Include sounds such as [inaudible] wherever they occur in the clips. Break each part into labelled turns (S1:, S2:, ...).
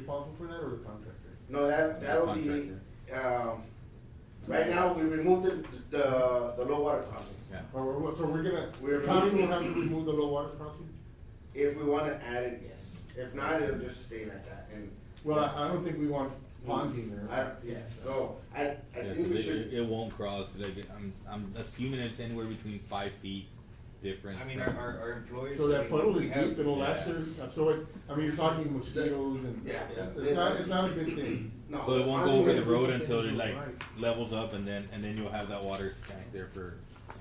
S1: responsible for that or the contractor?
S2: No, that,
S3: The
S2: that'll be, um, right now, we removed the, the, the low water crossing.
S3: Yeah.
S1: Or, we're- we're- so we're gonna,
S2: We're-
S1: the county will have to remove the low water crossing?
S2: If we wanna add it, yes.
S4: Yes.
S2: If not, it'll just stay like that and.
S1: Well, I, I don't think we want ponding
S2: I,
S1: there.
S2: yes, so, I, I
S3: Yeah,
S2: think
S3: 'cause
S2: we
S3: it- It,
S2: should,
S3: it won't cross, like, I'm, I'm assuming it's anywhere between five feet difference.
S4: I mean, our,
S3: from-
S4: our, our employees.
S1: So
S4: I
S1: that
S4: mean,
S1: puddle
S4: we
S1: is
S4: have-
S1: deep, it'll last
S3: yeah.
S1: there, uh, so it, I mean, you're talking mosquitoes and,
S2: Yeah.
S1: it's it's not, it's not a good thing.
S2: no.
S3: So it won't go
S2: ponding
S3: over the
S2: is-
S3: road until it
S1: something
S3: like
S1: right.
S3: levels up and then, and then you'll have that water tank there for.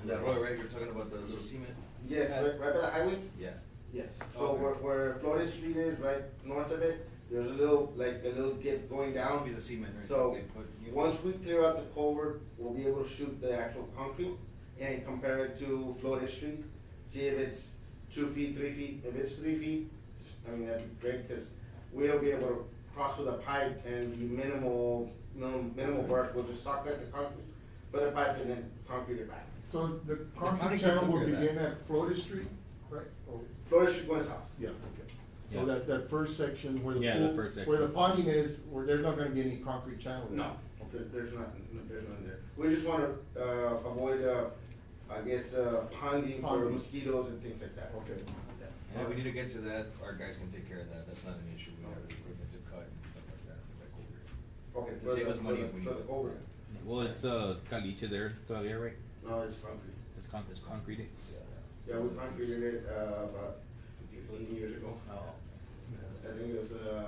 S4: That road, right, you're talking about the little cement?
S2: Yes, right, right by the highway,
S4: Yeah.
S2: yes, so
S4: Okay.
S2: where, where Flores Street is, right north of it, there's a little, like, a little dip going down.
S4: Be the cement, right?
S2: So,
S4: they put- you-
S2: once we clear out the culvert, we'll be able to shoot the actual concrete and compare it to Florida Street. See if it's two feet, three feet, if it's three feet, I mean, that'd be great, cause we'll be able to cross with a pipe and be minimal, minimal, minimal work, we'll just sock at the concrete, put a pipe and then concrete it back.
S1: So the
S4: county
S1: concrete
S4: can
S1: channel will
S4: take care of
S1: begin at Florida Street, right? Oh,
S2: Florida Street going south.
S1: Yeah, okay.
S3: Yeah.
S1: So that, that first section where the
S3: Yeah, the
S1: pool,
S3: first
S1: where the
S3: section.
S1: ponding is, where there's not gonna be any concrete channel. there.
S2: No, there- there's not, there's none there. We just wanna, uh, avoid, uh, I guess, uh, ponding for
S1: Ponding.
S2: mosquitoes and things like that.
S1: Okay.
S2: Yeah.
S4: And if we need to get to that, our guys can take care of that, that's not an issue, we have equipment to cut and stuff like that, like over
S2: Okay,
S4: To
S2: for
S4: save
S2: the-
S4: us
S2: for
S4: money
S2: the-
S4: if we
S2: For the
S4: need-
S2: culvert.
S3: Well, it's, uh, caliche there, todavía, right?
S2: No, it's concrete.
S3: It's con, it's concrete.
S2: [laughs]
S4: here.
S2: Yeah, we concreted it, uh, about fifteen years ago.
S3: Oh.
S2: I think it was, uh,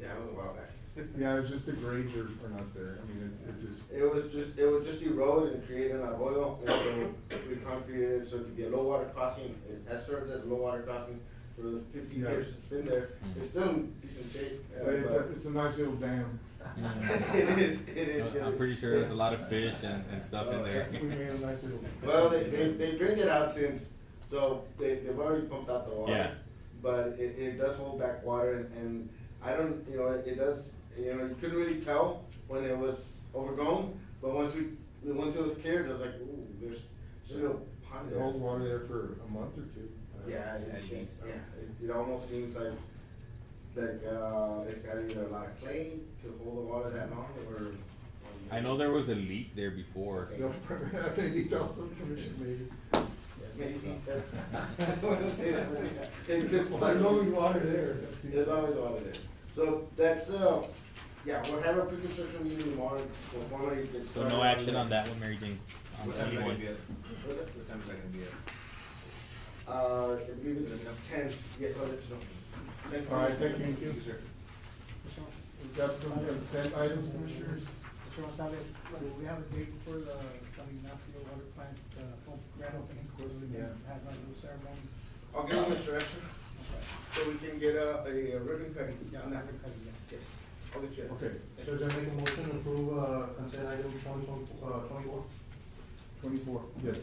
S2: yeah, it was a while back.
S1: Yeah, it's just the grades are, are not there, I mean, it's, it just,
S2: It was just, it was just eroded and created an arroyo, and so we concreted it so it could be a low water crossing. It has served as a low water crossing for the fifty
S1: Yeah.
S2: years it's been there. It's still in decent shape. uh,
S1: but it's, a-
S2: but-
S1: it's a nice little dam.
S2: [laughs]
S3: Yeah.
S2: It is, it is.
S3: Uh, I'm- I'm pretty sure there's a lot of fish and, and stuff in
S1: Uh,
S2: [laughs]
S3: there.
S1: We made a nice little.
S2: Well, they, they, they drained it out since, so they, they've already pumped out the water.
S3: Yeah.
S2: But it, it does hold back water and, and I don't, you know, it it does, you know, you couldn't really tell when it was overgrown, but once we, once it was cleared, it was like, ooh, there's, there's a little pond
S1: It
S2: there.
S1: holds water there for a month or two.
S2: Yeah,
S4: Yeah,
S2: it,
S4: you
S2: it's,
S4: can-
S2: yeah, it, it almost seems like, like, uh, it's got either a lot of clay to hold the water that long or. or-
S3: I know there was a leak there before.
S1: They'll, [laughs] maybe tell some commission maybe.
S2: Maybe that's, [laughs] I don't wanna say that, but yeah, it could-
S1: There's always water there.
S2: There's always water there. So that's, uh, yeah, we'll have a pre-construction meeting tomorrow, we'll formally get
S3: So
S2: started.
S3: no action on that one, Mary Jane. on
S4: What time is that gonna
S3: 21.
S4: be at?
S2: What's that?
S4: What time is that gonna be at?
S2: Uh, I believe it's ten, yes, I'll let you know. Thank you.
S1: All right, thank you.
S4: Thank you, sir.
S1: We've got some consent items, commissioners.
S5: Mr. Gonzalez, do we have a date for the San Ignacio water plant, uh, pump grand opening, because we
S1: Yeah.
S5: have a little ceremony.
S2: I'll give you this direction,
S5: Okay.
S2: so we can get a, a ribbon cutting.
S5: Yeah,
S2: on that.
S5: ribbon cutting, yes.
S2: Yes, I'll get you. that.
S1: Okay.
S2: Thank you.
S6: Should I make a motion to approve, uh, consent item twenty, uh, twenty-one?
S1: Twenty-four. Yes.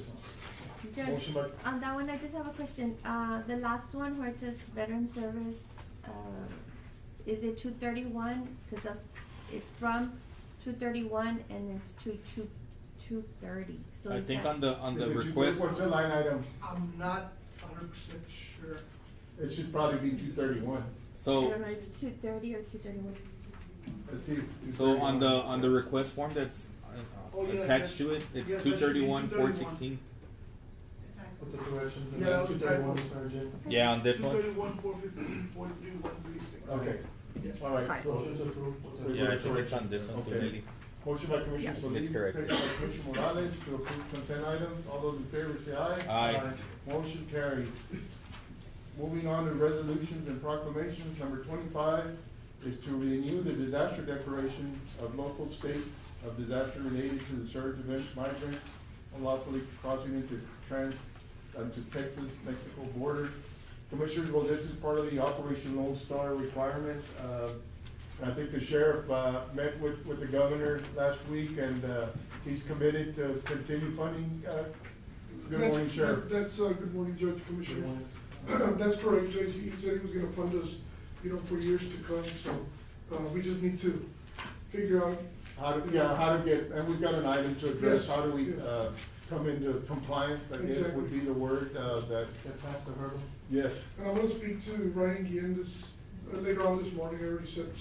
S7: Judge,
S1: Motion by-
S7: on that one, Um, I just have a question. Uh, the last one where it says veteran service, uh, is it two thirty-one? Cause of, it's from two thirty-one and it's to two, two thirty, so
S3: I
S7: is
S3: think
S7: that-
S3: on the, on the
S1: Is it two-
S3: request,
S1: What's the line item?
S5: I'm not hundred percent sure.
S1: It should probably be two thirty-one.
S7: I
S3: so,
S7: don't know, it's two thirty or two thirty-one?
S1: Let's see.
S3: so on the, on the request form that's uh,
S5: Oh, yes,
S3: attached
S5: that-
S3: to it, it's
S5: yes, that should be
S3: two thirty-one, four
S5: 231.
S3: sixteen.
S6: Put the direction,
S5: Yeah, that was
S6: two thirty-one,
S5: typo.
S6: Mr. Agenda.
S3: Yeah, on this one,
S5: thirty-one, four fifteen, four three, one three six.
S1: Okay.
S5: Yes.
S1: All right. so-
S6: Motion to approve. with the-
S1: Wait,
S3: yeah, I
S1: wait,
S3: think it's
S1: wait.
S3: on this one,
S1: Okay.
S3: two eighty.
S1: Motion by Commissioner
S3: Yeah.
S1: Solis,
S3: It's correct.
S1: second by Commissioner Morales to approve consent items. All those in favor say aye.
S3: Aye.
S1: Motion carries. Moving on to resolutions and proclamations, number twenty-five is to renew the disaster declaration of local state of disaster related to the surge of migrants unlawfully crossing into trans, into Texas, Mexico border. Commissioners, well, this is part of the Operation Lone Star requirement. Uh, I think the sheriff, uh, met with, with the governor last week and, uh, he's committed to continue funding, uh, good
S8: That's-
S1: morning, Sheriff.
S8: that- That's, uh, good morning, Judge
S6: Good
S8: Commissioner.
S6: morning.
S8: [clears throat] That's correct, Judge, he said he was gonna fund us, you know, for years to come, so, uh, we just need to figure out,
S1: How to, yeah, how to get, and we've got an item to address, how do we, uh, come into compliance, I guess would be the word, uh, that,
S6: Get past the hurdle.
S1: yes.
S8: and I'm gonna speak to Ryan Guillen this, uh, later on this morning, I already said